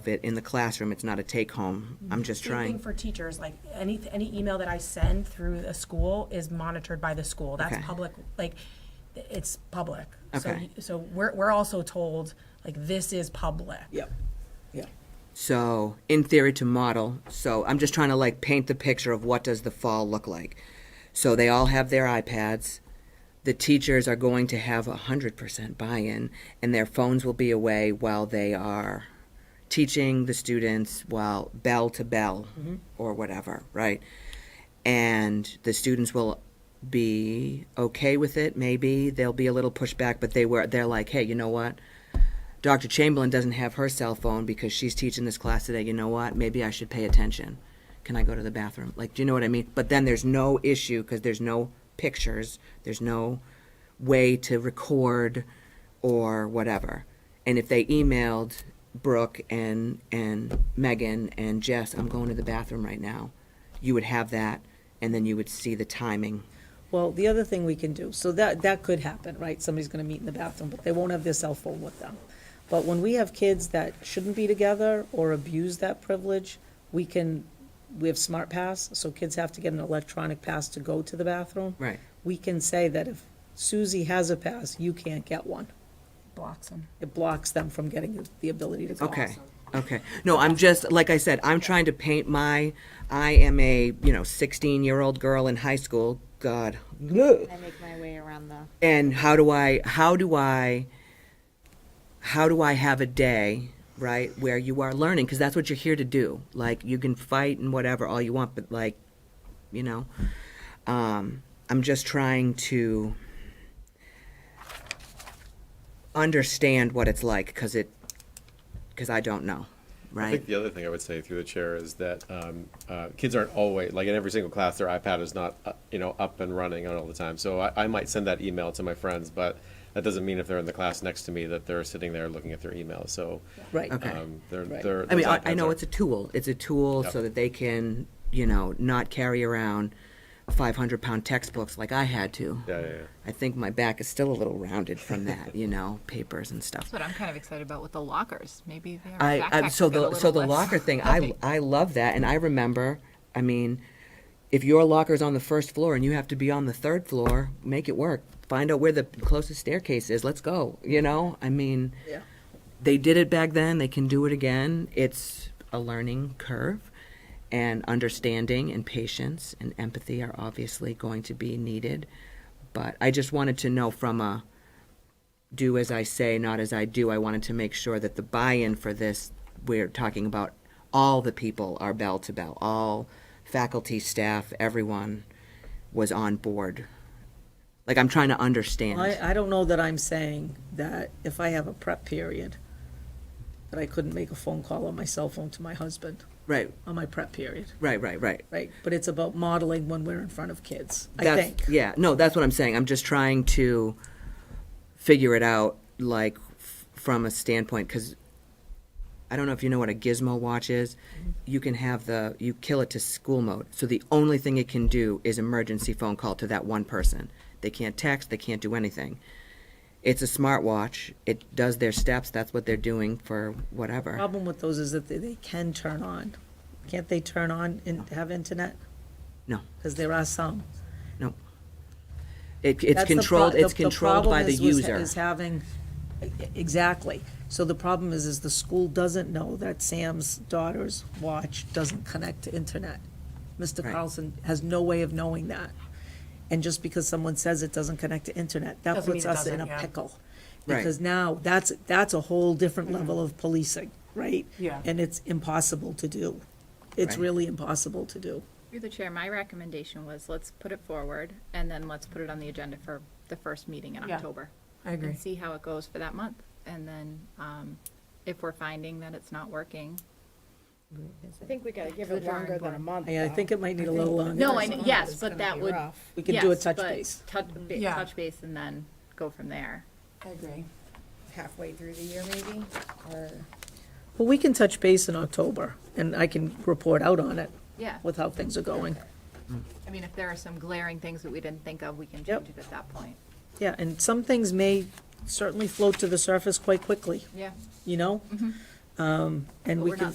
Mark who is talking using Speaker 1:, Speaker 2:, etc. Speaker 1: it in the classroom. It's not a take home. I'm just
Speaker 2: Same thing
Speaker 1: trying.
Speaker 2: for teachers, like any, any email that I send through the school is monitored by the school.
Speaker 1: Okay.
Speaker 2: That's public, like, it's public. So-
Speaker 1: Okay.
Speaker 2: So we're, we're also told, like, this is public.
Speaker 3: Yep, yeah.
Speaker 1: So, in theory, to model. So, I'm just trying to like paint the picture of what does the fall look like. So they all have their iPads. The teachers are going to have a hundred percent buy-in, and their phones will be away while they are teaching the students, while bell to bell or whatever, right? And the students will be okay with it. Maybe they'll be a little pushback, but they were. They're like, hey, you know what? Dr. Chamberlain doesn't have her cell phone because she's teaching this class today. You know what? Maybe I should pay attention. Can I go to the bathroom? Like, do you know what I mean? But then there's no issue because there's no pictures, there's no way to record or whatever. And if they emailed Brooke and and Megan and Jess, I'm going to the bathroom right now, you would have that, and then you would see the timing.
Speaker 3: Well, the other thing we can do, so that, that could happen, right? Somebody's gonna meet in the bathroom, but they won't have their cell phone with them. But when we have kids that shouldn't be together or abuse that privilege, we can, we have smart pass, so kids have to get an electronic pass to go to the bathroom.
Speaker 1: Right.
Speaker 3: We can say that if Susie has a pass, you can't get one.
Speaker 2: Blocks them.
Speaker 3: It blocks them from getting the ability to go.
Speaker 1: Okay. Okay. No, I'm just like I said, I'm trying to paint my I am a, you know, 16-year-old girl in high school. God. Ugh.
Speaker 4: I make my way around the.
Speaker 1: And how do I how do I how do I have a day, right, where you are learning because that's what you're here to do. Like you can fight and whatever all you want, but like, you know, um I'm just trying to understand what it's like because it because I don't know, right?
Speaker 5: I think the other thing I would say through the chair is that um, uh, kids aren't always, like in every single class, their iPad is not, uh, you know, up and running all the time. So I, I might send that email to my friends, but that doesn't mean if they're in the class next to me that they're sitting there looking at their email. So,
Speaker 3: Right.
Speaker 1: Okay.
Speaker 5: um, they're,
Speaker 3: Right.
Speaker 5: they're.
Speaker 1: I mean,
Speaker 5: those
Speaker 1: I, I
Speaker 5: iPads
Speaker 1: know
Speaker 5: are-
Speaker 1: it's a tool. It's a tool so
Speaker 5: Yep.
Speaker 1: that they can, you know, not carry around 500 pound textbooks like I had to.
Speaker 5: Yeah, yeah, yeah.
Speaker 1: I think my back is still a little rounded from that, you know, papers and stuff.
Speaker 6: That's what I'm kind of excited about with the lockers. Maybe their
Speaker 1: I, I
Speaker 6: backpacks
Speaker 1: so
Speaker 6: will get a
Speaker 1: the so
Speaker 6: little
Speaker 1: the
Speaker 6: less
Speaker 1: locker thing I
Speaker 6: heavy.
Speaker 1: I love that and I remember I mean if your locker's on the first floor and you have to be on the third floor make it work find out where the closest staircase is let's go you know I mean
Speaker 3: Yeah.
Speaker 1: they did it back then they can do it again it's a learning curve and understanding and patience and empathy are obviously going to be needed but I just wanted to know from a do as I say, not as I do. I wanted to make sure that the buy-in for this, we're talking about all the people are bell to bell, all faculty, staff, everyone was on board. Like I'm trying to understand.
Speaker 3: I, uh, I don't know that I'm saying that if I have a prep period, that I couldn't make a phone call on my cell phone to my husband
Speaker 1: right,
Speaker 3: on my prep period,
Speaker 1: right, right, right.
Speaker 3: right? But it's about modeling when we're in front of kids, I
Speaker 1: That's-
Speaker 3: think.
Speaker 1: Yeah, no, that's what I'm saying. I'm just trying to figure it out, like f- from a standpoint, because I don't know if you know what a gizmo watch is.
Speaker 3: Mm-hmm.
Speaker 1: You can have the you kill it to school mode, so the only thing it can do is emergency phone call to that one person. They can't text. They can't do anything. It's a smartwatch. It does their steps. That's what they're doing for whatever.
Speaker 3: Problem with those is that they, they can turn on. Can't they turn on and have internet?
Speaker 1: No.
Speaker 3: Because there are some.
Speaker 1: No. It, it's
Speaker 3: That's the pro-
Speaker 1: controlled.
Speaker 3: the-
Speaker 1: It's
Speaker 3: the
Speaker 1: controlled by
Speaker 3: problem
Speaker 1: the
Speaker 3: is- was-
Speaker 1: user.
Speaker 3: Is having, e-, exactly. So the problem is, is the school doesn't know that Sam's daughter's watch doesn't connect to internet. Mr.
Speaker 1: Right.
Speaker 3: Carlson has no way of knowing that. And just because someone says it doesn't connect to internet, that
Speaker 2: Doesn't mean
Speaker 3: puts
Speaker 2: it
Speaker 3: us in
Speaker 2: doesn't,
Speaker 3: a
Speaker 2: yeah.
Speaker 3: pickle.
Speaker 1: Right.
Speaker 3: Because now, that's, that's a whole different level of policing, right?
Speaker 2: Mm-hmm. Yeah.
Speaker 3: And it's impossible to do. It's
Speaker 1: Right.
Speaker 3: really impossible to do.
Speaker 4: Through the chair, my recommendation was let's put it forward and then let's put it on the agenda for the first meeting in
Speaker 2: Yeah,
Speaker 4: October.
Speaker 2: I agree.
Speaker 4: And see how it goes for that month. And then, um, if we're finding that it's not working.
Speaker 7: I think we gotta give it longer than a month.
Speaker 3: I I
Speaker 7: though.
Speaker 3: think it might need a little longer.
Speaker 4: No, I,
Speaker 7: First month
Speaker 4: yes,
Speaker 7: is
Speaker 4: but
Speaker 7: gonna
Speaker 4: that
Speaker 7: be
Speaker 4: would.
Speaker 7: rough.
Speaker 3: We could do a
Speaker 4: yes,
Speaker 3: touch
Speaker 4: but
Speaker 3: base.
Speaker 4: Touch, ba-
Speaker 2: Yeah.
Speaker 4: touch base and then go from there.
Speaker 7: I agree. Halfway through the year maybe, or,
Speaker 3: Well, we can touch base in October, and I can report out on it
Speaker 4: Yeah.
Speaker 3: with how things are going.
Speaker 4: I mean, if there are some glaring things that we didn't think of, we can
Speaker 3: Yep.
Speaker 4: change it at that point.
Speaker 3: Yeah, and some things may certainly float to the surface quite quickly,
Speaker 4: Yeah. Mm-hmm.
Speaker 3: you know?
Speaker 8: Um, and
Speaker 3: But
Speaker 8: we
Speaker 3: we're
Speaker 8: can.
Speaker 3: not